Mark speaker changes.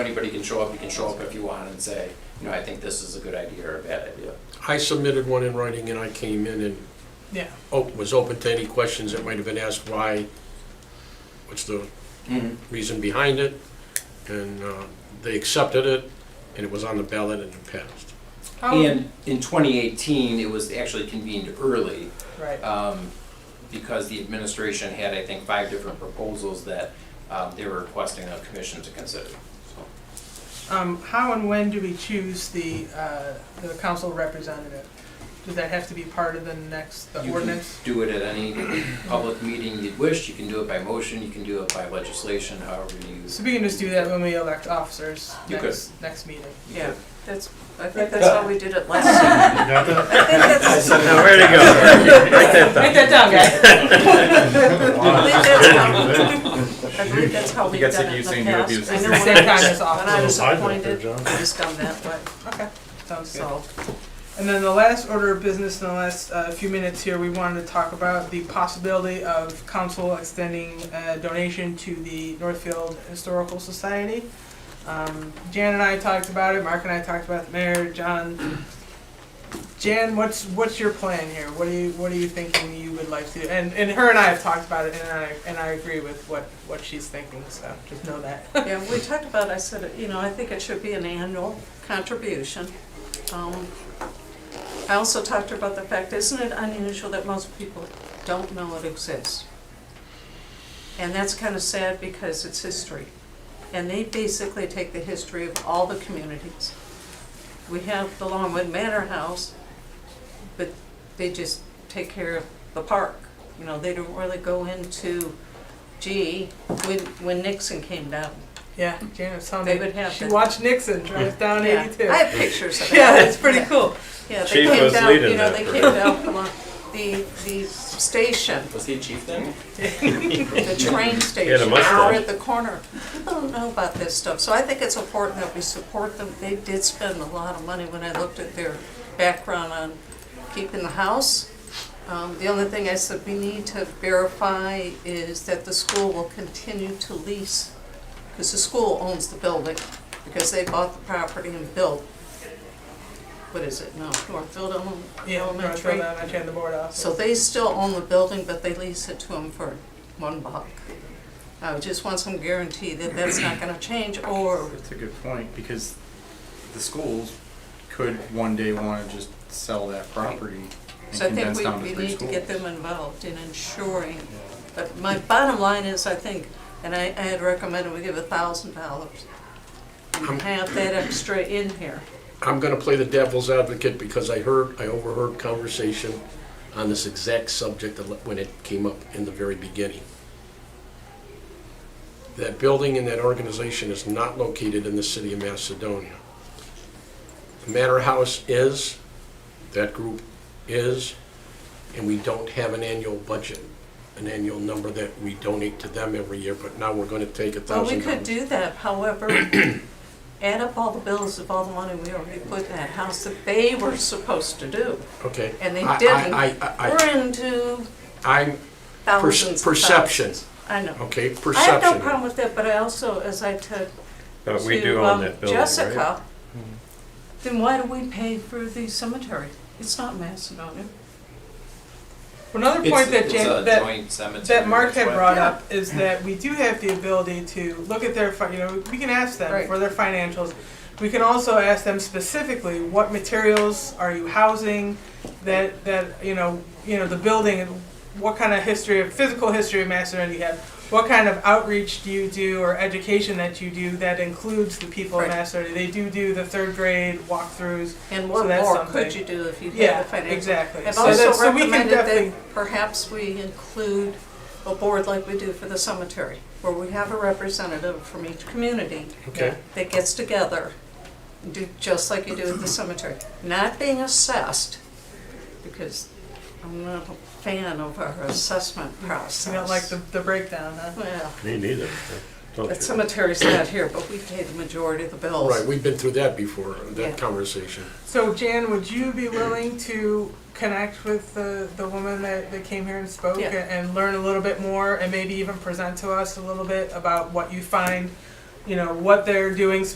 Speaker 1: anybody can show up, you can show up if you want and say, you know, I think this is a good idea or a bad idea.
Speaker 2: I submitted one in writing and I came in and
Speaker 3: Yeah,
Speaker 2: oh, was open to any questions that might have been asked, why, what's the
Speaker 1: Mm-hmm.
Speaker 2: reason behind it, and uh, they accepted it, and it was on the ballot and it passed.
Speaker 3: How-
Speaker 1: And in 2018, it was actually convened early
Speaker 3: right,
Speaker 1: um, because the administration had, I think, five different proposals that um, they were requesting a commission to consider. So,
Speaker 3: um, how and when do we choose the, uh, the council representative? Does that have to be part of the next, the
Speaker 1: you can
Speaker 3: ordinance?
Speaker 1: do it at any public meeting you'd wish. You can do it by motion. You can do it by legislation. However you.
Speaker 3: So we can just do that when we elect officers
Speaker 1: You could.
Speaker 3: next, next meeting.
Speaker 1: you
Speaker 4: Yeah,
Speaker 1: could-
Speaker 4: that's, I think that's how we did it last time. Oh,
Speaker 5: Where'd it go? Write that
Speaker 3: Write that down, guys.
Speaker 4: I think that's how, I believe that's how
Speaker 5: You
Speaker 4: we've
Speaker 5: got
Speaker 4: done
Speaker 5: sick
Speaker 4: it
Speaker 5: of
Speaker 4: in
Speaker 5: you
Speaker 4: the
Speaker 5: saying you abused
Speaker 4: past. I
Speaker 5: it.
Speaker 4: know
Speaker 3: Same
Speaker 4: when
Speaker 3: time
Speaker 4: I was-
Speaker 3: as
Speaker 4: when I
Speaker 3: officer.
Speaker 4: was appointed, it was done that way,
Speaker 3: Okay, sounds good.
Speaker 4: so.
Speaker 3: And then the last order of business in the last uh, few minutes here, we wanted to talk about the possibility of council extending a donation to the Northfield Historical Society. Um, Jan and I talked about it, Mark and I talked about it, Mayor, John. Jan, what's, what's your plan here? What are you, what are you thinking you would like to, and, and her and I have talked about it, and I, and I agree with what, what she's thinking, so just know that.
Speaker 4: Yeah, we talked about, I said, you know, I think it should be an annual contribution. Um, I also talked about the fact, isn't it unusual that most people don't know it exists? And that's kind of sad because it's history. And they basically take the history of all the communities. We have the Longwood Manor House, but they just take care of the park. You know, they don't really go into, gee, when, when Nixon came down,
Speaker 3: Yeah, Jan was telling
Speaker 4: They would
Speaker 3: me,
Speaker 4: have
Speaker 3: she
Speaker 4: that.
Speaker 3: watched Nixon drive down
Speaker 4: Yeah.
Speaker 3: eighty-two.
Speaker 4: I have pictures of it.
Speaker 3: Yeah, it's pretty cool.
Speaker 4: Yeah, they
Speaker 5: Chief
Speaker 4: came
Speaker 5: was
Speaker 4: down, you
Speaker 5: leading
Speaker 4: know,
Speaker 5: that
Speaker 4: they
Speaker 5: for-
Speaker 4: came down from uh, the, the station,
Speaker 1: Was he chief then?
Speaker 4: the train station, out
Speaker 5: mustache.
Speaker 4: at the corner. People don't know about this stuff, so I think it's important that we support them. They did spend a lot of money when I looked at their background on keeping the house. Um, The only thing I said we need to verify is that the school will continue to lease, because the school owns the building, because they bought the property and built, what is it now, Northfield Ele-
Speaker 3: Yeah, I'm gonna throw
Speaker 4: Elementary?
Speaker 3: that, I turned the board off.
Speaker 4: So they still own the building, but they lease it to them for one buck. I just want some guarantee that that's not gonna change, or
Speaker 5: That's a good point, because the schools could one day wanna just sell that property and
Speaker 4: So I think
Speaker 5: condense
Speaker 4: we,
Speaker 5: down to
Speaker 4: we
Speaker 5: three
Speaker 4: need to get them
Speaker 5: schools.
Speaker 4: involved in ensuring, but my bottom line is, I think, and I, I had recommended we give a thousand dollars.
Speaker 2: Um,
Speaker 4: And have that extra in here.
Speaker 2: I'm gonna play the devil's advocate because I heard, I overheard conversation on this exact subject a li- when it came up in the very beginning. That building and that organization is not located in the city of Macedonia. The Manor House is, that group is, and we don't have an annual budget, an annual number that we donate to them every year, but now we're gonna take a
Speaker 4: Well, we
Speaker 2: thousand
Speaker 4: could
Speaker 2: dollars.
Speaker 4: do that, however, add up all the bills of all the money we already put in that house that they were supposed to do.
Speaker 2: Okay.
Speaker 4: and they
Speaker 2: I- I-
Speaker 4: didn't.
Speaker 2: I, I, I,
Speaker 4: We're into
Speaker 2: I'm,
Speaker 4: thousands and
Speaker 2: perception.
Speaker 4: thousands. I know.
Speaker 2: Okay,
Speaker 4: I
Speaker 2: perception.
Speaker 4: have no problem with that, but I also, as I took
Speaker 6: But we do
Speaker 4: to
Speaker 6: own
Speaker 4: um,
Speaker 6: that building, right? Mm-hmm.
Speaker 4: Jessica, then why do we pay for the cemetery? It's not Macedonia.
Speaker 3: Another point that
Speaker 1: It's
Speaker 3: Jan,
Speaker 1: a
Speaker 3: that,
Speaker 1: joint cemetery.
Speaker 3: that Mark had
Speaker 1: that's why-
Speaker 3: brought
Speaker 4: Yeah.
Speaker 3: up is that we do have the ability to look at their, fi- you know, we can ask them
Speaker 4: Right.
Speaker 3: for their financials. We can also ask them specifically, what materials are you housing, that, that, you know, you know, the building, and what kind of history, of physical history of Macedonia you have? What kind of outreach do you do or education that you do that includes the people of
Speaker 4: Right.
Speaker 3: Macedonia? They do do the third grade walkthroughs,
Speaker 4: And what
Speaker 3: So that's
Speaker 4: more could
Speaker 3: something.
Speaker 4: you do if you
Speaker 3: Yeah,
Speaker 4: had the financial?
Speaker 3: exactly.
Speaker 4: I've
Speaker 3: So that's-
Speaker 4: also
Speaker 3: so we can
Speaker 4: recommended
Speaker 3: definitely-
Speaker 4: that perhaps we include a board like we do for the cemetery, where we have a representative from each community
Speaker 2: Okay,
Speaker 4: that gets together, do just like you do at the cemetery, not being assessed, because I'm not a fan of our assessment process.
Speaker 3: you know, like the, the breakdown, huh?
Speaker 4: Well,
Speaker 6: Me neither. Don't
Speaker 4: the
Speaker 6: you?
Speaker 4: cemetery's not here, but we pay the majority of the
Speaker 2: all
Speaker 4: bills.
Speaker 2: right, we've been through that before,
Speaker 4: Yeah.
Speaker 2: that conversation.
Speaker 3: So Jan, would you be willing to connect with the, the woman that, that came here and spoke
Speaker 4: Yeah.
Speaker 3: and, and learn a little bit more and maybe even present to us a little bit about what you find, you know, what they're doing